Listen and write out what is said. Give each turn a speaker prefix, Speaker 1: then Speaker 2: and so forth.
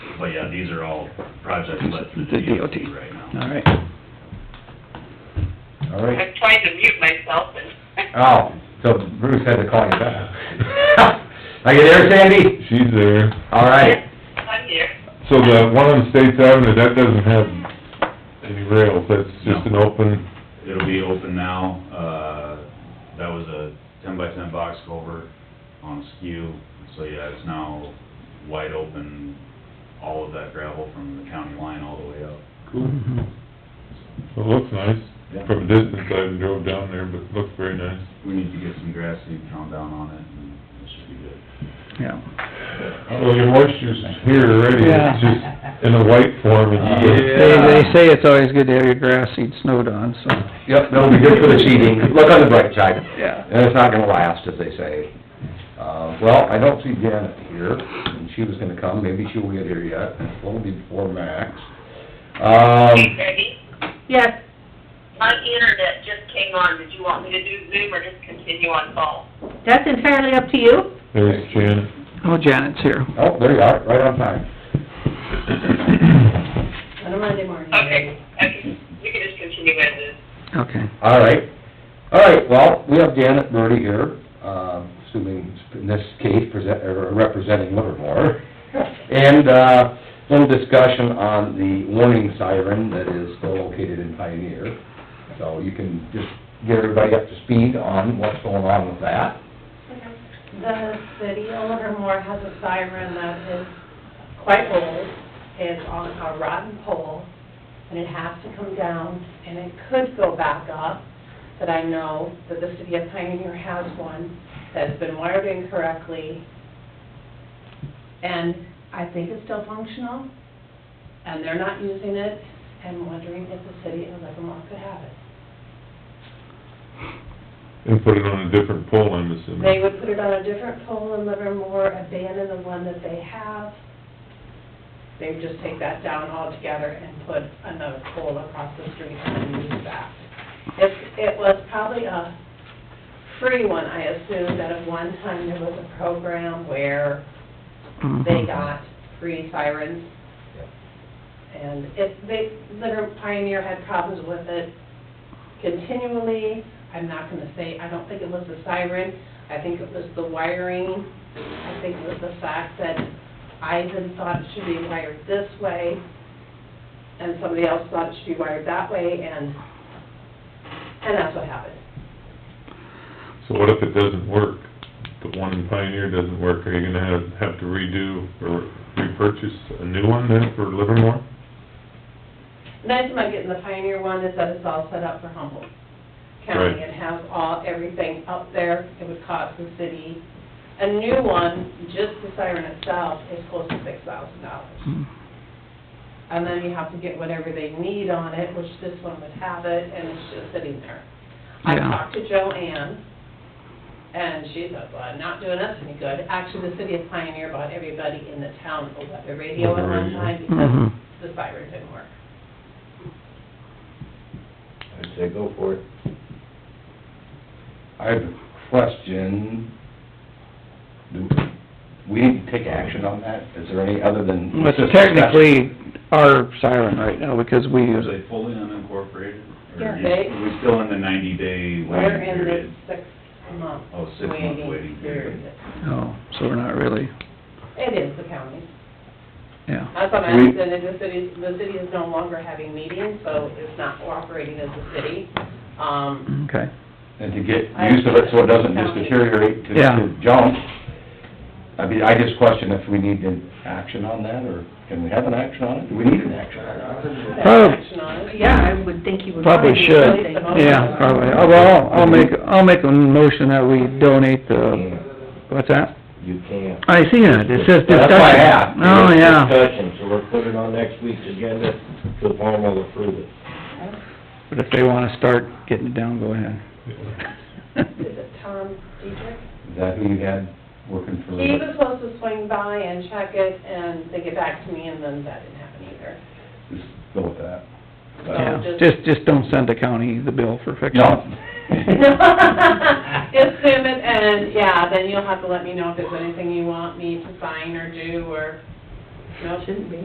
Speaker 1: but yeah, these are all projects listed
Speaker 2: The
Speaker 1: to
Speaker 2: DOT.
Speaker 1: DOT right now.
Speaker 2: All right.
Speaker 3: All right.
Speaker 4: I'm trying to mute myself and.
Speaker 3: Oh, so Bruce had to call you back. Are you there, Sandy?
Speaker 5: She's there.
Speaker 3: All right.
Speaker 4: I'm here.
Speaker 5: So the one on States Avenue, that doesn't have any rails, that's just an open,
Speaker 1: It'll be open now, uh, that was a ten by ten box culvert on skew, so yeah, it's now wide open, all of that gravel from the county line all the way up.
Speaker 2: Mhm.
Speaker 5: it looks nice. From a distance, I haven't drove down there, but it looks very nice.
Speaker 1: We need to get some grass seed thrown down on it, and it should be good.
Speaker 2: Yeah.
Speaker 5: Oh, Well, your moisture's here already,
Speaker 2: Yeah.
Speaker 5: it's just in a white form, and you
Speaker 2: They, they say it's always good to have your grass seed snowed on, so,
Speaker 3: Yep, that'll be good for the cheating. Look on the bright side.
Speaker 2: yeah.
Speaker 3: And it's not gonna last, as they say. Uh, well, I don't see Janet here, and she was gonna come, maybe she will get here yet, and it'll be before Max.
Speaker 4: Hey,
Speaker 3: Um,
Speaker 4: Peggy,
Speaker 6: Yes,
Speaker 4: my internet just came on. Did you want me to do Zoom or just continue on call?
Speaker 6: that's entirely up to you.
Speaker 5: there's Janet.
Speaker 2: Oh, Janet's here.
Speaker 3: oh, there you are, right on time.
Speaker 6: On a Monday morning.
Speaker 4: Okay, okay, we can just continue as is.
Speaker 2: Okay.
Speaker 3: All right. All right, well, we have Janet Birdie here, uh, assuming in this case present, or representing Livermore. And, uh, little discussion on the warning siren that is still located in Pioneer. So you can just get everybody up to speed on what's going on with that.
Speaker 7: The city of Livermore has a siren that is quite old. It's on a rotten pole, and it has to come down, and it could go back up. But I know that the city of Pioneer has one that has been wired incorrectly. And I think it's still functional, and they're not using it, and wondering if the city of Livermore could have it.
Speaker 5: And put it on a different pole, I'm assuming.
Speaker 7: They would put it on a different pole in Livermore, abandon the one that they have. They would just take that down altogether and put another pole across the street and use that. It, it was probably a free one, I assume, that at one time there was a program where they
Speaker 2: Mhm.
Speaker 7: got free sirens. And it, they, Litter Pioneer had problems with it continually. I'm not gonna say, I don't think it was the siren, I think it was the wiring. I think it was the fact that Ivan thought it should be wired this way, and somebody else thought it should be wired that way, and, and that's what happened.
Speaker 5: So what if it doesn't work? The one in Pioneer doesn't work, are you gonna have, have to redo or repurchase a new one then for Livermore?
Speaker 7: Nice about getting the Pioneer one is that it's all set up for Humboldt
Speaker 5: Right.
Speaker 7: County and has all, everything up there. It would cost the city, a new one, just the siren itself, is close to six thousand dollars.
Speaker 2: Mhm.
Speaker 7: And then you have to get whatever they need on it, which this one would have it, and it's just sitting there. I
Speaker 2: Yeah.
Speaker 7: talked to Joanne, and she said, well, not doing us any good. Actually, the city of Pioneer bought everybody in the town a weather radio at one time
Speaker 2: Mhm.
Speaker 7: because the siren didn't work.
Speaker 3: I'd say go for it. I have a question. Do we need to take action on that? Is there any other than?
Speaker 2: But technically, our siren right now, because we
Speaker 1: Are
Speaker 2: use it.
Speaker 1: they fully unincorporated? Or
Speaker 7: Yeah,
Speaker 1: are
Speaker 7: they-
Speaker 1: we still in the ninety day
Speaker 7: We're
Speaker 1: waiting
Speaker 7: in the
Speaker 1: period?
Speaker 7: six-month
Speaker 1: Oh, six-month
Speaker 7: waiting
Speaker 1: waiting
Speaker 7: period.
Speaker 1: period.
Speaker 2: Oh, so we're not really,
Speaker 7: It is the county.
Speaker 2: yeah.
Speaker 7: That's what I
Speaker 3: We-
Speaker 7: understand, is the city, the city is no longer having meetings, so it's not cooperating as a city. Um,
Speaker 2: Okay.
Speaker 3: and to get use of it so it doesn't just deteriorate to
Speaker 2: Yeah.
Speaker 3: to junk. I mean, I just question if we need an action on that, or can we have an action on it? Do we need an action on it?
Speaker 2: Prob-
Speaker 7: action on it.
Speaker 6: Yeah, I would think you would.
Speaker 2: Probably
Speaker 6: do
Speaker 2: should.
Speaker 6: something.
Speaker 2: Yeah, probably. Oh, Well, I'll make, I'll make a motion that we donate the, what's that?
Speaker 8: You can't.
Speaker 2: I see that, it says discussion.
Speaker 3: That's why I asked.
Speaker 2: Oh,
Speaker 3: uh,
Speaker 2: yeah.
Speaker 8: Discussion, so we're putting it on next week's agenda, so Warren will approve it.
Speaker 2: But if they wanna start getting it down, go ahead.
Speaker 7: Is it Tom Dietrich?
Speaker 3: Is that who you had working for?
Speaker 7: He was supposed to swing by and check it, and they get back to me, and then that didn't happen either.
Speaker 3: Just go with that.
Speaker 2: Yeah, just, just don't send the county the bill for fixing
Speaker 3: No.
Speaker 2: it.
Speaker 7: Assume it, and, yeah, then you'll have to let me know if there's anything you want me to sign or do, or, no,
Speaker 6: Shouldn't be.